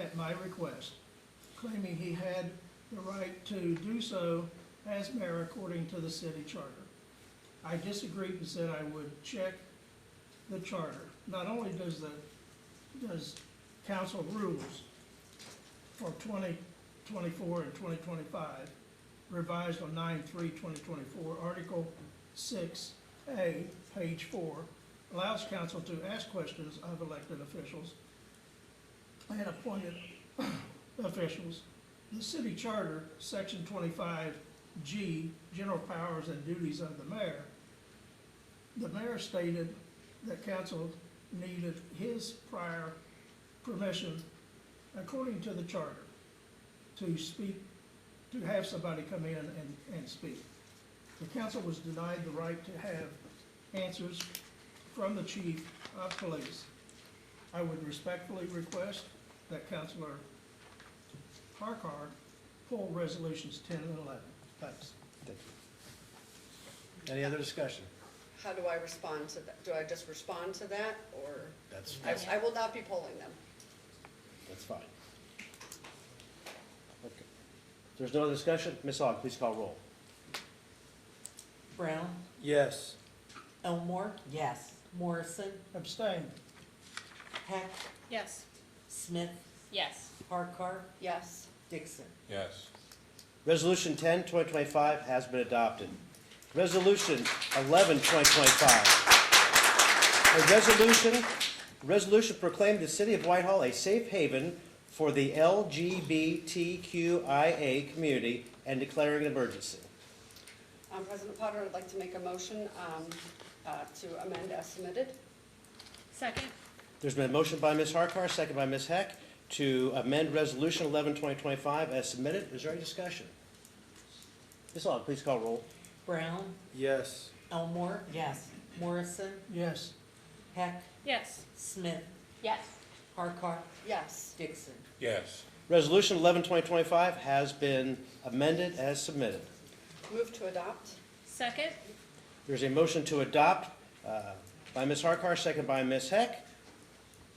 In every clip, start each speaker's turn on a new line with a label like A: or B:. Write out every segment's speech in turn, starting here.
A: at my request, claiming he had the right to do so as mayor according to the city charter. I disagreed and said I would check the charter. Not only does the, does council rules for twenty twenty-four and twenty twenty-five revised on 9-3-2024, Article six A, page four, allows council to ask questions of elected officials and appointed officials. The city charter, section twenty-five G, general powers and duties of the mayor. The mayor stated that council needed his prior permission, according to the charter, to speak, to have somebody come in and, and speak. The council was denied the right to have answers from the chief of police. I would respectfully request that Councilor Harkar pull resolutions ten and eleven. Thanks.
B: Thank you. Any other discussion?
C: How do I respond to that? Do I just respond to that, or?
B: That's, that's,
C: I, I will not be polling them.
B: that's fine. Okay. If There's no other discussion? Ms. Aug, please call roll.
D: Brown,
B: Yes.
D: Elmore,
E: Yes.
D: Morrison,
A: Abstain.
D: Heck,
F: Yes.
D: Smith,
F: Yes.
D: Harkar,
C: Yes,
D: Dixon.
G: yes,
B: Resolution 10, 2025 has been adopted. Resolution 11, 2025. A resolution, resolution proclaiming the city of Whitehall a safe haven for the LGBTQIA community and declaring an emergency.
C: um, President Potter, I'd like to make a motion, um, uh, to amend as submitted.
F: Second?
B: There's been a motion by Ms. Harkar, second by Ms. Heck, to amend Resolution 11, 2025 as submitted. Is there any discussion? Ms. Aug, please call roll.
D: Brown,
B: Yes.
D: Elmore,
E: Yes.
D: Morrison,
A: Yes.
D: Heck,
F: Yes.
D: Smith,
F: Yes.
D: Harkar,
C: Yes,
D: Dixon.
G: yes,
B: Resolution 11, 2025 has been amended as submitted.
C: move to adopt.
F: Second?
B: There's a motion to adopt uh, by Ms. Harkar, second by Ms. Heck.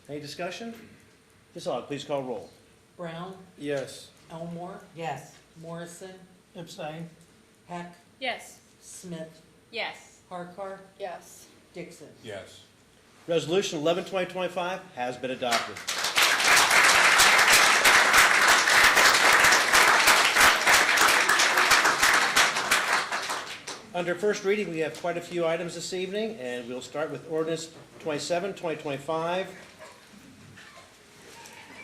B: Any discussion? Ms. Aug, please call roll.
D: Brown,
B: Yes.
D: Elmore,
E: Yes.
D: Morrison,
A: Abstain.
D: Heck,
F: Yes.
D: Smith,
F: Yes.
D: Harkar,
C: Yes,
D: Dixon.
G: yes.
B: Resolution 11, 2025 has been adopted. Under first reading, we have quite a few items this evening, and we'll start with ordinance 27, 2025,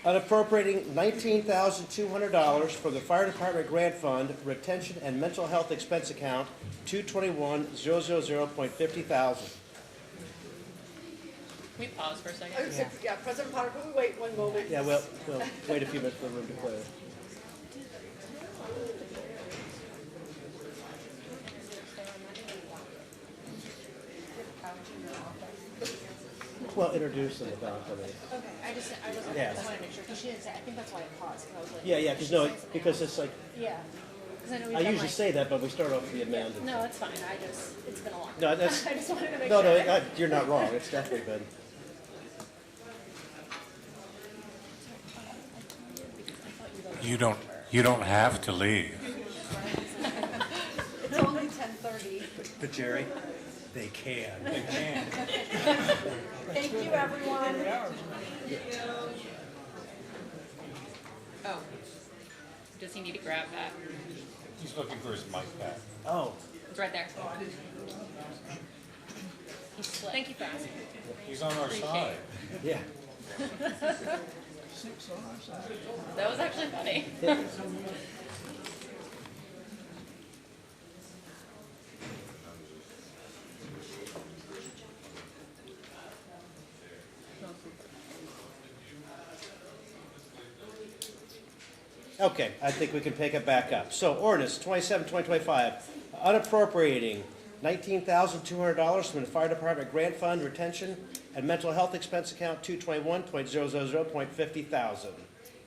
B: unappropriating $19,200 from the Fire Department Grant Fund Retention and Mental Health Expense Account 221000.50 thousand.
F: we pause for a
C: I
F: second?
C: would say, yeah, President Potter, can we wait one moment?
B: Yeah, well, we'll wait a few minutes for the room to clear. Well, introduce them about it.
H: Okay, I just, I wasn't, I
B: Yeah.
H: just wanted to make sure, because she didn't say, I think that's why I paused, because I was like.
B: Yeah, yeah, because no, because it's like,
H: Yeah, because I know we've
B: I
H: done
B: usually
H: like.
B: say that, but we start off with the amend.
H: No, it's fine, I just, it's been a long.
B: No, that's-
H: I just wanted to make
B: No,
H: sure.
B: no, I- you're not wrong, it's definitely been.
G: You don't, you don't have to leave.
C: It's only ten thirty.
B: But Jerry, they can.
C: Thank you, everyone.
F: Oh. Does he need to grab that?
G: He's looking for his mic back.
B: Oh,
F: It's right there. Thank you for asking.
G: He's on our side.
B: yeah.
A: Six on our side.
F: That was actually funny.
B: Okay, I think we can pick it back up. So ordinance 27, 2025, unappropriating $19,200 from the Fire Department Grant Fund Retention and Mental Health Expense Account 221.000.50 thousand.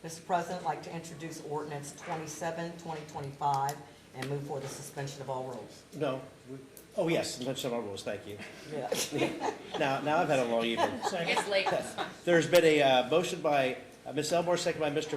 E: Mr. President, I'd like to introduce ordinance 27, 2025, and move for the suspension of all rules.
B: No, we- oh yes, mention all rules, thank you.
E: Yeah.
B: Now, now I've had a long evening.
A: Second.
F: It's late.
B: There's been a uh, motion by Uh, Ms. Elmore, second by Mr.